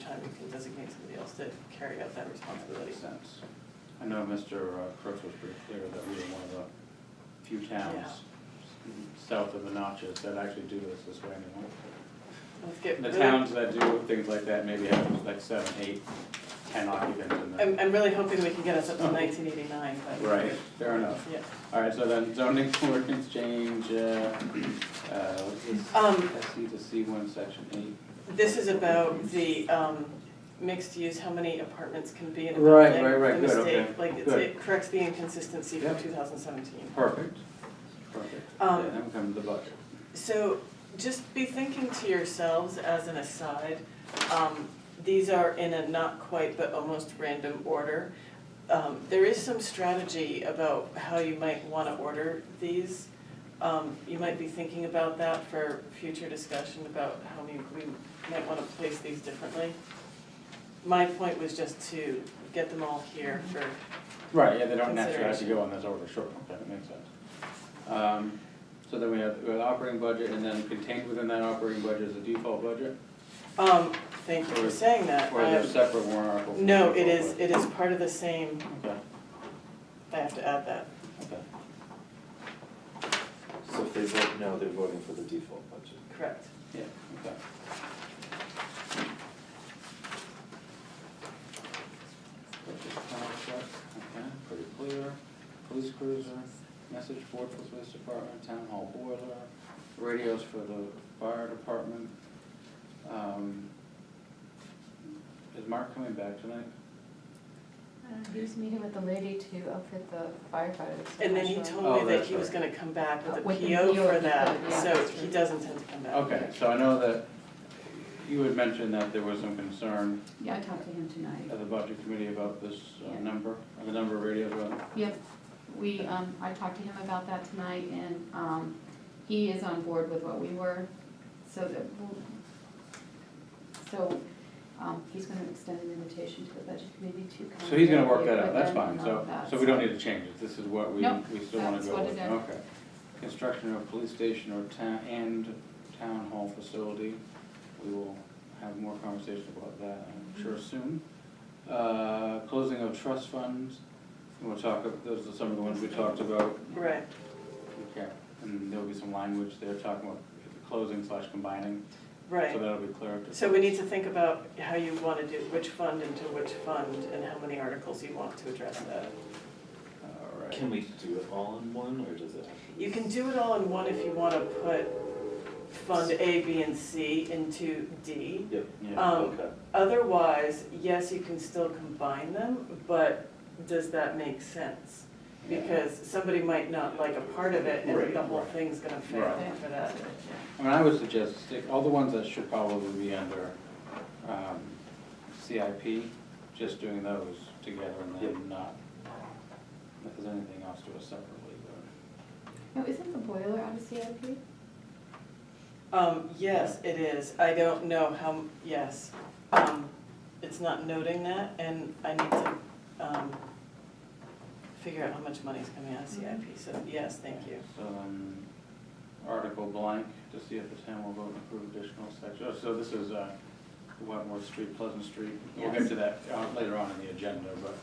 time, you can designate somebody else to carry out that responsibility. Makes sense. I know Mr. uh, Crooks was pretty clear that we were one of the few towns south of the Notches that actually do this this way anymore. Let's get The really- towns that do things like that maybe have like seven, eight, ten occupants in I'm, them. I'm really hoping we can get us up Oh. to nineteen eighty-nine, but. Right, fair enough. Yeah. All right, so then zoning ordinance change, uh, uh, what's this? Um, SC to C one, section eight. This is about the, um, mixed use, how many apartments can be in a Right, building. right, right, The good, okay, mistake, like, it's- good. it corrects the inconsistency from Yep. two thousand seventeen. Perfect, perfect. Um, Yeah, Then we come to the budget. So just be thinking to yourselves as an aside, um, these are in a not quite but almost random order. Um, there is some strategy about how you might wanna order these. Um, you might be thinking about that for future discussion about how we, we might wanna place these differently. My point was just to get them all here for, Right, yeah, they don't naturally have to go on this order, sure, okay, that makes sense. Um, so then we have, we have operating budget, and then contained within that operating budget is a default budget, um, thank you for saying that. or is there a Um, separate warrant article? for No, the it default is, it is part of the same, budget? Okay, I have to add that. okay, So if they vote no, they're voting for the default budget. Correct. yeah, okay. Purchase power truck, okay, pretty clear, police cruiser, message board for the police department, town hall boiler, radios for the fire department. Um, Is Mark coming back tonight? Uh, He was meeting with the lady to outfit the firefighters. And then he Actually. told Oh, me that that's he was right. gonna come back with a With the PO PO, for that, yeah, so that's he right. doesn't tend to come back. Okay, so I know that you had mentioned that there was some concern Yeah, I talked to him at tonight. the budget committee about this uh, Yeah. number, uh, the number of radios. uh, Yep, we, um, I talked to him about that tonight and, um, he is on board with what we were, so that, we'll- so, um, he's gonna extend an invitation to the budget committee to come. So he's gonna and work meet that out, with that's them fine, and all so, of that, so we don't need to change it, this is what we, Nope, we still wanna that's go what with, it is. okay. Construction of police station or town, and town hall facility, we will have more conversation about that, I'm Mm-hmm. sure soon. Uh, closing of trust funds, we'll talk, ab- those are some of the ones we talked about Right, Okay, and there'll be some language there talking about closing slash combining, so right. that'll be clear. to- So we need to think about how you wanna do, which fund into which fund, and how many articles you want to address that. All right. Can we do it all in one, or does it have to be? You can do it all in one if you wanna put Fund A, B, and C into D. Yep, Yeah, Um, okay. Otherwise, yes, you can still combine them, but does that make sense? Because somebody might not like a part of it and Right, the whole right. thing's gonna fail Right. for that. I mean, I would suggest stick, all the ones that should probably be under, um, CIP, just doing those together and Yep. then not, if there's anything else to us separately, but. Now, isn't the boiler out of CIP? Um, yes, it is. I don't know how, m- yes. Um, it's not noting that and I need to, um, figure out how much money's coming out of CIP, so yes, thank you. So then, article blank, to see if the town will vote and approve additional section, oh, so this is, uh, Wentworth Street, Pleasant Street, we'll get Yes. to that uh, later on in the agenda, but.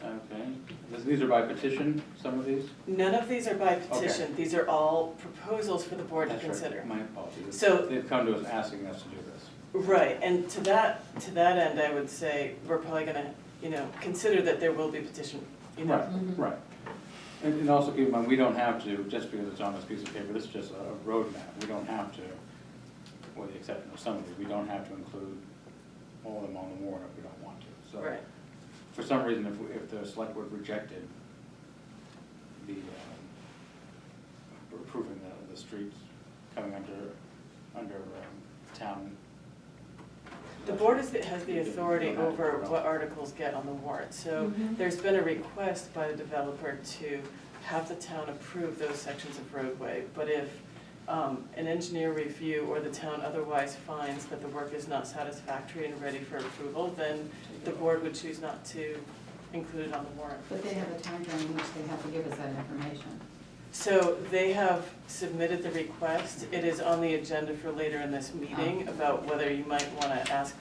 Okay, This- these are by petition, some of these? None of these are by petition. These are all proposals for the board to That's right, consider. My apologies, So they've come to us asking us to do this. Right, and to that, to that end, I would say, we're probably gonna, you know, consider that there will be petition, you know. Right, right. And, and also keep in mind, we don't have to, just because it's on this piece of paper, this is just a roadmap, we don't have to, with the exception of some of these, we don't have to include all of them on the warrant if we don't want to, so. Right, For some reason, if, we- if the select board rejected the, um, approving the, the streets coming under, under, um, town. the board is, has the authority over what articles get on the warrant, so Mhm. there's been a request by the developer to have the town approve those sections of roadway, but if um, an engineer review or the town otherwise finds that the work is not satisfactory and ready for approval, then the board would choose not to include it on the warrant. But they have a time during which they have to give us that information. So they have submitted the request. It is on the agenda for later in this meeting about whether you might want to ask